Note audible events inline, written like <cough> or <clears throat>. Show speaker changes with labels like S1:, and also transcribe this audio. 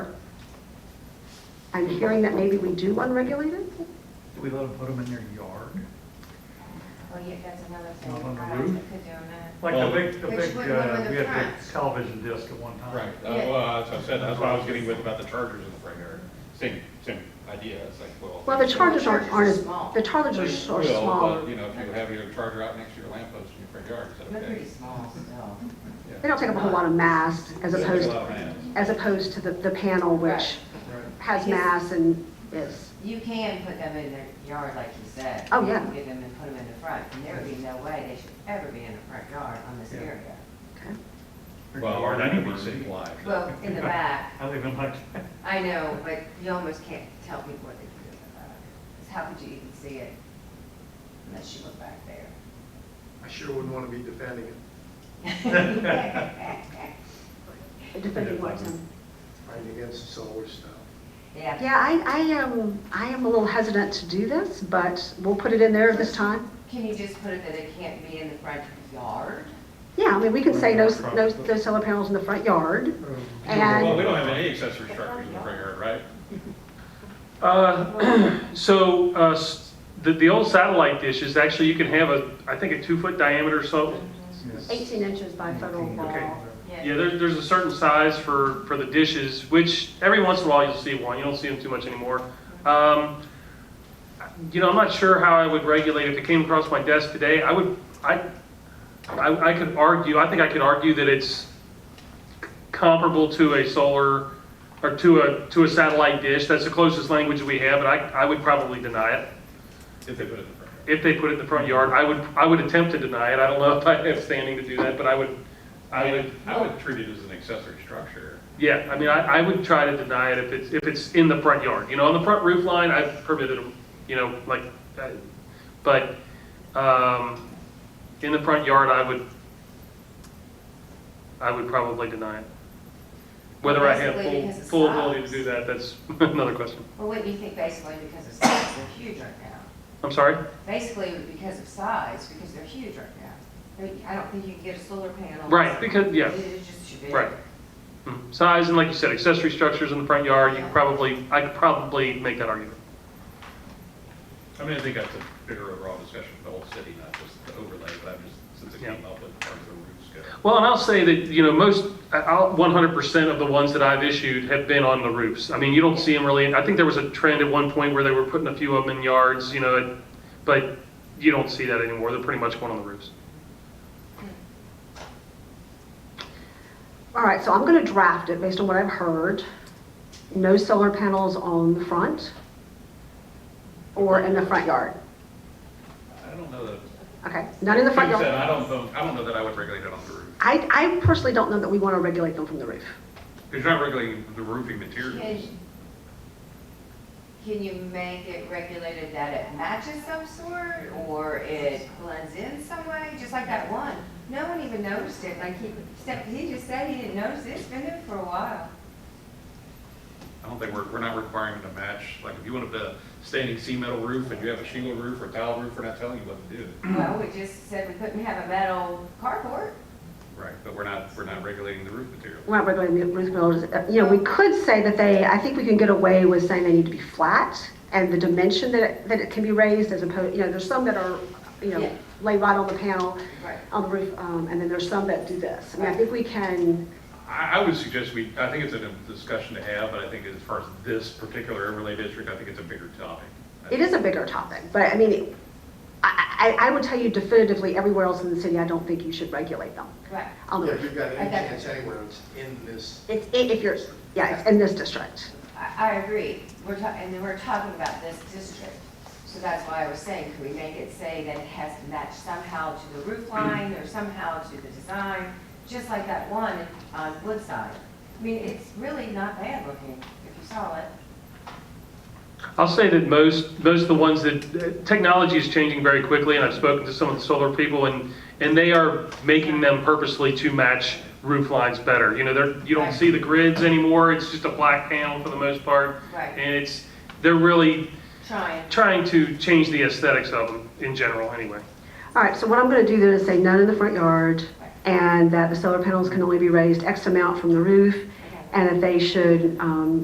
S1: I'm hearing that maybe we do unregulated?
S2: Do we let them put them in their yard?
S3: Well, yeah, that's another thing.
S2: Up on the
S3: How else
S2: roof?
S3: could do that?
S2: Like
S4: Well-
S2: the big, the
S3: Which
S2: big,
S3: one- one
S2: uh,
S3: with
S2: we
S3: the
S2: had the
S3: front?
S2: television disc at one time.
S4: Right, uh,
S3: Yeah.
S4: well, that's what I said, that's what I was getting with about the chargers in the front yard. Same, same idea, it's like, well.
S1: Well, the charges aren't, aren't as,
S3: Charges are small.
S1: the charges
S4: Well,
S1: are
S4: but,
S1: smaller.
S4: You know, if you have your charger out next to your lamp post in your front yard, is that
S5: They're
S4: okay?
S5: pretty small still.
S4: Yeah.
S1: They don't take up a whole lot of mass as
S4: Doesn't
S1: opposed,
S4: take a lot of land.
S1: as opposed to the, the panel, which
S3: Right.
S2: Right.
S1: has mass and is,
S5: You can put them in their yard, like you said.
S1: Oh, yeah.
S5: You can Get them and put them in the front, and there would be no way they should ever be in the front yard on this
S2: Yeah.
S5: area.
S1: okay.
S2: Their
S4: Well, or
S2: yard
S4: that could be
S2: anywhere.
S4: citywide.
S5: Well, in the back,
S2: I live in like,
S5: I know, but you almost can't tell people what they do in the back. 'Cause how could you even see it unless you look
S1: <laughs>
S5: back there?
S6: I sure wouldn't want to be defending it,
S1: Depending what time.
S6: fighting against this always stuff.
S5: Yeah,
S1: Yeah, I, I am, I am a little hesitant to do this, but we'll put it in there this time.
S5: can you just put it that it can't be in the front yard?
S1: Yeah, I mean, we can say no, no, no solar panels in the front yard.
S4: Well, we
S1: And,
S4: don't have any accessory structures in the front yard, right?
S7: Uh, <clears throat> So uh, s- the, the old satellite dish is actually, you can have a, I think, a two-foot diameter or so.
S2: yes.
S1: 18 inches by federal
S7: Okay.
S1: wall.
S7: Yeah, there's, there's a certain size for, for the dishes, which every once in a while you'll see one. You don't see them too much anymore. Um, You know, I'm not sure how I would regulate, if it came across my desk today, I would, I, I I could argue, I think I could argue that it's comparable to a solar, or to a, to a satellite dish. That's the closest language we have, but I, I would probably deny it.
S4: If they put it in the front yard.
S7: if they put it in the front yard, I would, I would attempt to deny it. I don't know if I have standing to do that, but I would, I would,
S4: I would treat it as an accessory structure.
S7: yeah, I mean, I, I would try to deny it if it's, if it's in the front yard. You know, on the front roof line, I've permitted them, you know, like, uh, but, um, in the front yard, I would, I would probably deny it. Whether I have
S5: Basically,
S7: full,
S5: because it's
S7: full ability to
S5: size.
S7: do that, that's <laughs> another question.
S5: Well, wouldn't you think basically because of size, they're huge right now?
S7: I'm sorry?
S5: Basically because of size, because they're huge right now. I mean, I don't think you can get a solar panel.
S7: Right, because, yeah.
S5: It is just too big.
S7: Right. Mhm. Size, and like you said, accessory structures in the front yard, you could probably, I could probably make that argument.
S4: I mean, I think that's a bigger overall discussion for the whole city, not just the overlay, but I'm just, since it came up with where the roofs go.
S7: Well, and I'll say that, you know, most, I- I'll, 100% of the ones that I've issued have been on the roofs. I mean, you don't see them really, I think there was a trend at one point where they were putting a few of them in yards, you know, it- but you don't see that anymore, they're pretty much going on the roofs.
S1: All right, so I'm going to draft it based on what I've heard. No solar panels on the front or in the front yard.
S4: I don't know that,
S1: Okay, none in the front
S4: like I said,
S1: yard.
S4: I don't, know- I don't know that I would regulate it on the roof.
S1: I, I personally don't know that we want to regulate them from the roof.
S4: Because you're not regulating the roofing materials.
S5: Can, can you make it regulated that it matches some sort, or it blends in some way, just like that one? No one even noticed it, like he, except he just said he didn't notice it, it's been there for a while.
S7: <clears throat>
S4: I don't think we're, we're not requiring them to match, like, if you want a standing sea metal roof and you have a shingle roof or tile roof, we're not telling you what to do.
S5: Well, we just said we couldn't have a metal carport.
S4: Right, but we're not, we're not regulating the roof material.
S1: We're not regulating the roof builders. Uh, You know, we could say that they, I think we can get away with saying they need to be flat and the dimension that, it- that it can be raised as opposed, you know, there's some that are, you
S5: Yeah.
S1: know, lay right on the panel,
S5: Right.
S1: on the roof, um, and then there's some that do this. I mean, I think we can,
S4: I, I would suggest we, I think it's a discussion to have, but I think as far as this particular overlay district, I think it's a bigger topic.
S1: it is a bigger topic, but I mean, I, I, I would tell you definitively, everywhere else in the city, I don't think you should regulate them
S5: Right.
S1: on the
S6: If you've
S1: roof.
S6: got any
S5: Okay.
S6: chance anywhere, it's in this,
S1: It's, i- if you're, yeah, it's in this district.
S5: I, I agree. We're talking, and then we're talking about this district. So that's why I was saying, could we make it say that it has to match somehow to the roof line or somehow to the design? Just like that one on Woodside. I mean, it's really not bad looking, if you saw it.
S7: I'll say that most, most of the ones that, uh, technology is changing very quickly, and I've spoken to some of the solar people, and, and they are making them purposely to match roof lines better. You know, they're, you don't see the grids anymore, it's just a black panel for the most part.
S5: Right.
S7: And it's, they're really
S5: Trying.
S7: trying to change the aesthetics of them in general, anyway.
S1: All right, so what I'm going to do then is say none in the front yard, and that the solar panels can only be raised X amount from the roof, and that they should um,